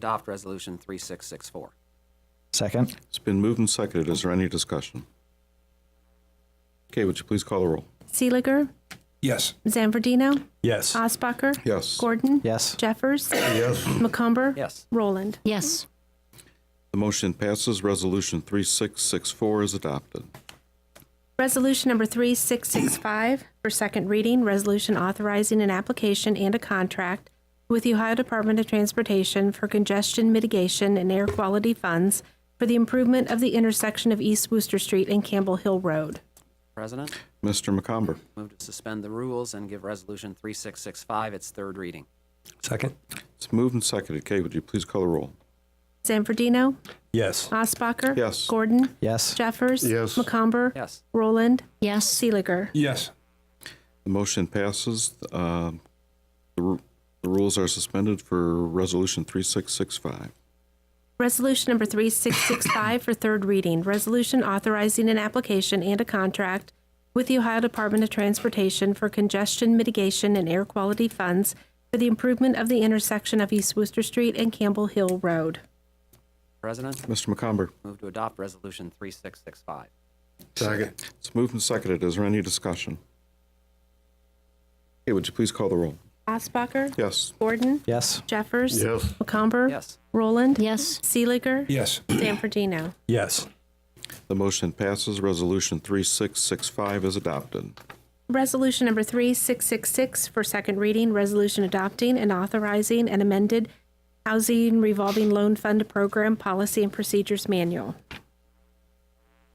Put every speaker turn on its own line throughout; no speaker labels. adopt Resolution 3664.
Second.
It's been moved and seconded. Is there any discussion? Okay, would you please call the roll?
Seeliger,
Yes.
Zanfordino,
Yes.
Osbacher,
Yes.
Gordon,
Yes.
Jeffers, yes. McCumber,
Yes.
Roland.
yes,
The motion passes. Resolution 3664 is adopted.
Resolution number 3665 for second reading, resolution authorizing an application and a contract with the Ohio Department of Transportation for congestion mitigation and air quality funds for the improvement of the intersection of East Wooster Street and Campbell Hill Road.
President,
Mr. McComber,
move to suspend the rules and give Resolution 3665 its third reading.
Second.
it's moved and seconded. Kay, would you please call the roll?
Zanfordino,
Yes.
Osbacher.
Yes.
Gordon.
Yes.
Jeffers. Yes. McComber.
Yes.
Roland.
yes,
Seeliger.
Yes.
The motion passes. Uh, The ru- the rules are suspended for Resolution 3665.
Resolution number 3665 for third reading, resolution authorizing an application and a contract with the Ohio Department of Transportation for congestion mitigation and air quality funds for the improvement of the intersection of East Wooster Street and Campbell Hill Road.
President,
Mr. McComber,
move to adopt Resolution 3665.
it's moved and seconded. Is there any discussion? Okay, would you please call the roll?
Osbacher?
Yes.
Gordon?
Yes.
Jeffers? Yes. McComber?
Yes.
Roland?
yes,
Seeliger?
Yes.
Zanfordino?
Yes.
The motion passes. Resolution 3665 is adopted.
Resolution number 3666 for second reading, resolution adopting and authorizing an amended housing revolving loan fund program policy and procedures manual.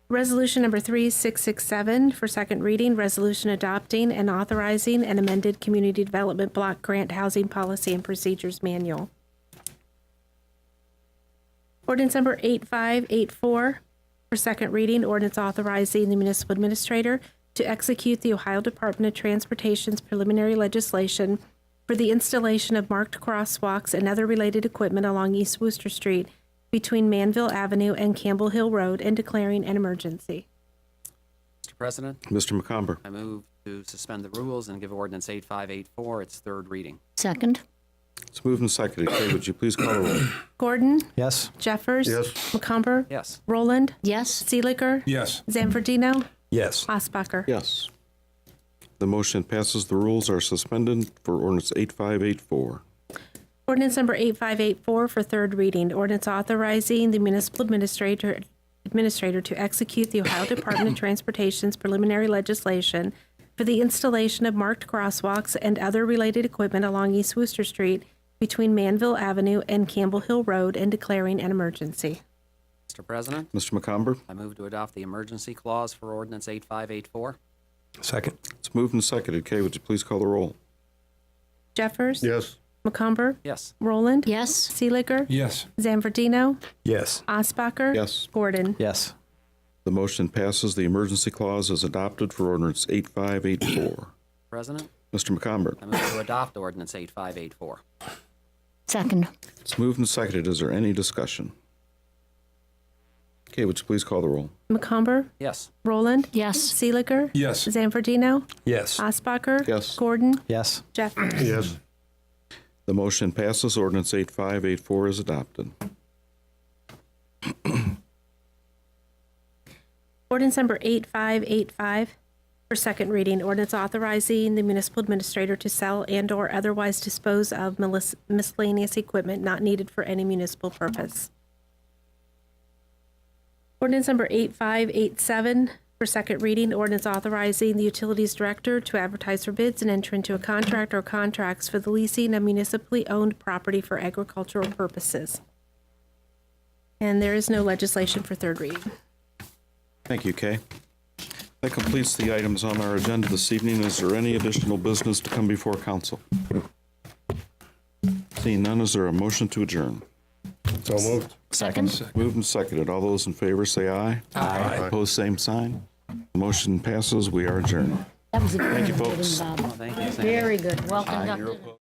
Resolution number 3667 for second reading, resolution adopting and authorizing an amended community development block grant housing policy and procedures manual. Ordinance number 8584 for second reading, ordinance authorizing the municipal administrator to execute the Ohio Department of Transportation's preliminary legislation for the installation of marked crosswalks and other related equipment along East Wooster Street between Manville Avenue and Campbell Hill Road and declaring an emergency.
Mr. President,
Mr. McComber,
I move to suspend the rules and give Ordinance 8584 its third reading.
second,
it's moved and seconded. Kay, would you please call the roll?
Gordon,
Yes.
Jeffers, McCumber,
Yes.
Roland,
yes,
Seeliger,
Yes.
Zanfordino,
Yes.
Osbacher.
Yes. The motion passes. The rules are suspended for ordinance 8584.
Ordinance number 8584 for third reading. Ordinance authorizing the municipal administrator, administrator to execute the Ohio Department of Transportation's preliminary legislation for the installation of marked crosswalks and other related equipment along East Wooster Street between Manville Avenue and Campbell Hill Road and declaring an emergency.
Mr. President,
Mr. McComber,
I move to adopt the emergency clause for Ordinance 8584.
Second.
it's moved and seconded. Kay, would you please call the roll?
Jeffers? Yes. McCumber?
Yes.
Roland?
yes,
Seeliger?
Yes.
Zanfordino?
Yes.
Osbacher?
Yes.
Gordon?
Yes.
The motion passes. The emergency clause is adopted for ordinance 8584.
President,
Mr. McComber,
I move to adopt Ordinance 8584.
second,
it's moved and seconded. Is there any discussion? Kay, would you please call the roll?
McCumber?
Yes.
Roland?
yes,
Seeliger?
Yes.
Zanfordino?
Yes.
Osbacher?
Yes.
Gordon?
Yes.
Jeffers?
The motion passes. Ordinance 8584 is adopted.
Ordinance number 8585 for second reading. Ordinance authorizing the municipal administrator to sell and/or otherwise dispose of melis- miscellaneous equipment not needed for any municipal purpose. Ordinance number 8587 for second reading. Ordinance authorizing the utilities director to advertise for bids and enter into a contract or contracts for the leasing of municipally owned property for agricultural purposes. And there is no legislation for third reading.
Thank you, Kay. That completes the items on our agenda this evening. Is there any additional business to come before council? Seeing none, is there a motion to adjourn?
So moved.
second,
Moved and seconded. All those in favor say aye. Aye. Opposed, same sign. Motion passes. We are adjourned.
that was a very
you,
good meeting,
folks.
Bob,
Thank you. Sam.
very good, well conducted.